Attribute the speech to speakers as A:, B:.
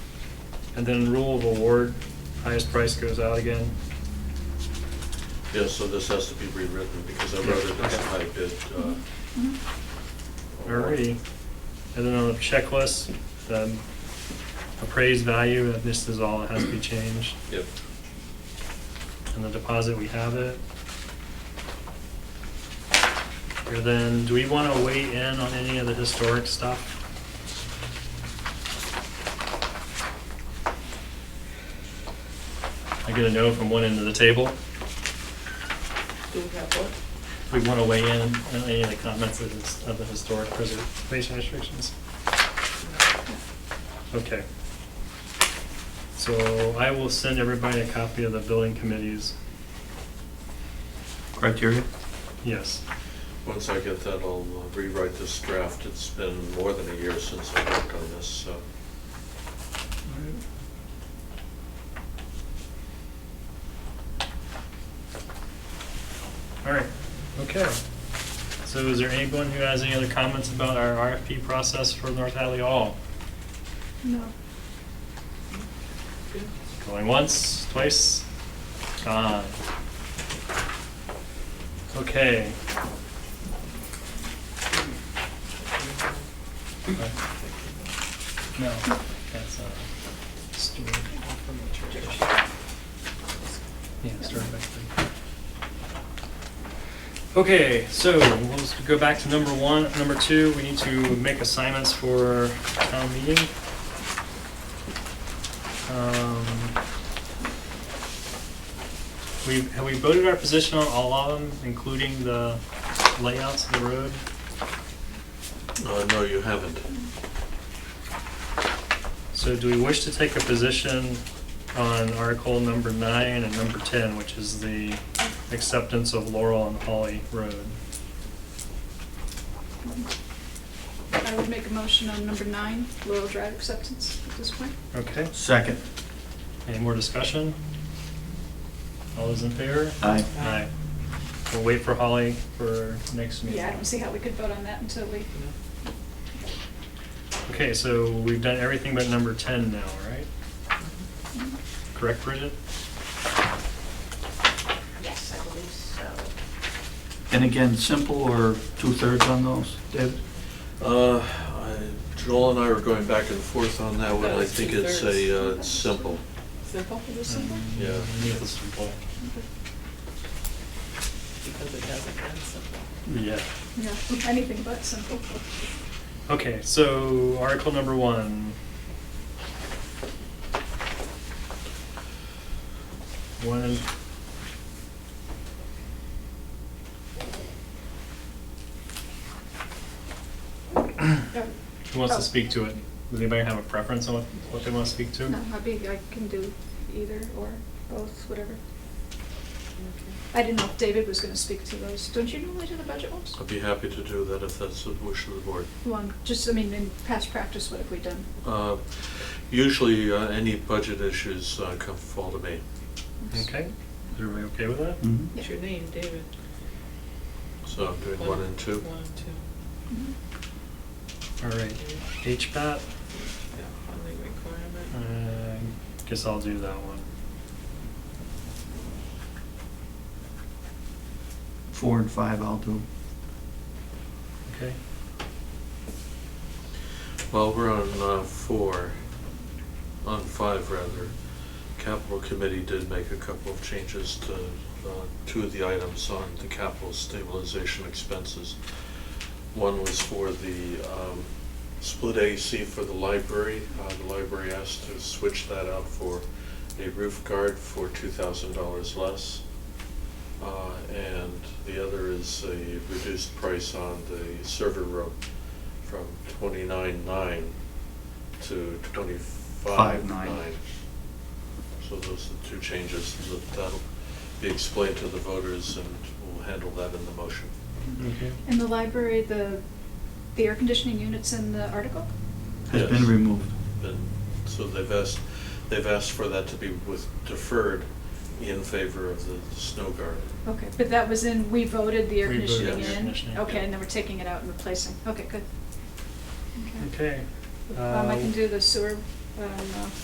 A: And then rule of award, highest price goes out again.
B: Yeah, so this has to be rewritten because I wrote it as a high bid. uh,
C: Mm-hmm.
B: award.
A: Alrighty. E. And then on the checklist, the appraised value, this is all that has to be changed.
B: Yep.
A: And the deposit, we have it. And then, do we want to weigh in on any of the historic stuff? I get a no from one end of the table.
D: Do we have what?
A: We want to weigh in on any of the comments of this- of the historic preservation restrictions. Okay. So I will send everybody a copy of the building committees.
E: criteria?
A: Yes.
B: Once I get that, I'll uh, rewrite this draft. It's been more than a year since I worked on this, so.
A: All right, okay. So is there anyone who has any other comments about our RFP process for North Hadley Hall?
C: No.
A: Going once, twice, gone. Okay. No, that's a story. Yeah, story back there. Okay, so we'll just go back to number one. Number two, we need to make assignments for town meeting. Um, We, have we voted our position on all of them, including the layouts of the road?
B: Uh, No, you haven't.
A: So do we wish to take a position on article number nine and number ten, which is the acceptance of Laurel and Holly Road?
C: I would make a motion on number nine, Laurel Drive acceptance at this point.
A: Okay,
E: Second.
A: any more discussion? All those in favor?
E: Aye.
A: Aye. We'll wait for Holly for next meeting.
C: Yeah, I don't see how we could vote on that until we,
A: Okay, so we've done everything but number 10 now, right? Correct, Bridget?
D: Yes, I believe so.
E: And again, simple or two-thirds on those, David?
B: Uh, I- Joel and I were going back and forth on that one.
D: That
B: I
D: was
B: think it's a, uh,
D: two-thirds.
B: it's simple.
D: Simple? Is it simple?
B: Yeah.
A: Mm, yeah, that's simple.
D: Because it doesn't end simple.
A: Yeah.
C: no, anything but simple.
A: Okay, so article number one. One and.
C: No,
A: Who wants to speak to it? Does anybody have a preference on what- what they want to speak to?
C: no, I'd be, I can do either or both, whatever. I didn't know if David was gonna speak to those. Don't you normally do the budget ones?
B: I'd be happy to do that if that's the wish of the board.
C: One, just, I mean, in past practice, what have we done?
B: Uh, Usually, uh, any budget issues uh, come fall to me.
A: Okay, is everybody okay with that?
E: Mhm.
D: What's your name, David?
B: So I'm doing one and two.
D: One and
C: Mhm.
D: two.
A: All right, HPAT,
D: Yeah, funding requirement.
A: uh, guess I'll do that one.
E: Four and five I'll do.
A: Okay,
B: Well, we're on uh, four, on five rather. Capital Committee did make a couple of changes to uh, two of the items on the capital stabilization expenses. One was for the um, split AC for the library. Uh, The library asked to switch that out for a roof guard for $2,000 less. Uh, And the other is a reduced price on the server room from twenty-nine nine to twenty-five
E: Five nine.
B: nine. So those are the two changes, That- that'll be explained to the voters and we'll handle that in the motion.
A: okay.
C: In the library, the, the air conditioning units in the article?
E: Has
B: Yes.
E: been removed.
B: And so they've asked, they've asked for that to be with, deferred in favor of the snow guard.
C: Okay, but that was in, we voted the air
A: We voted
C: conditioning
B: the air
C: in?
A: conditioning,
C: Okay,
B: yeah.
C: and then we're taking it out and replacing, okay, good.
A: Okay.
C: Um, I
A: uh,
C: can do the sewer, um, uh,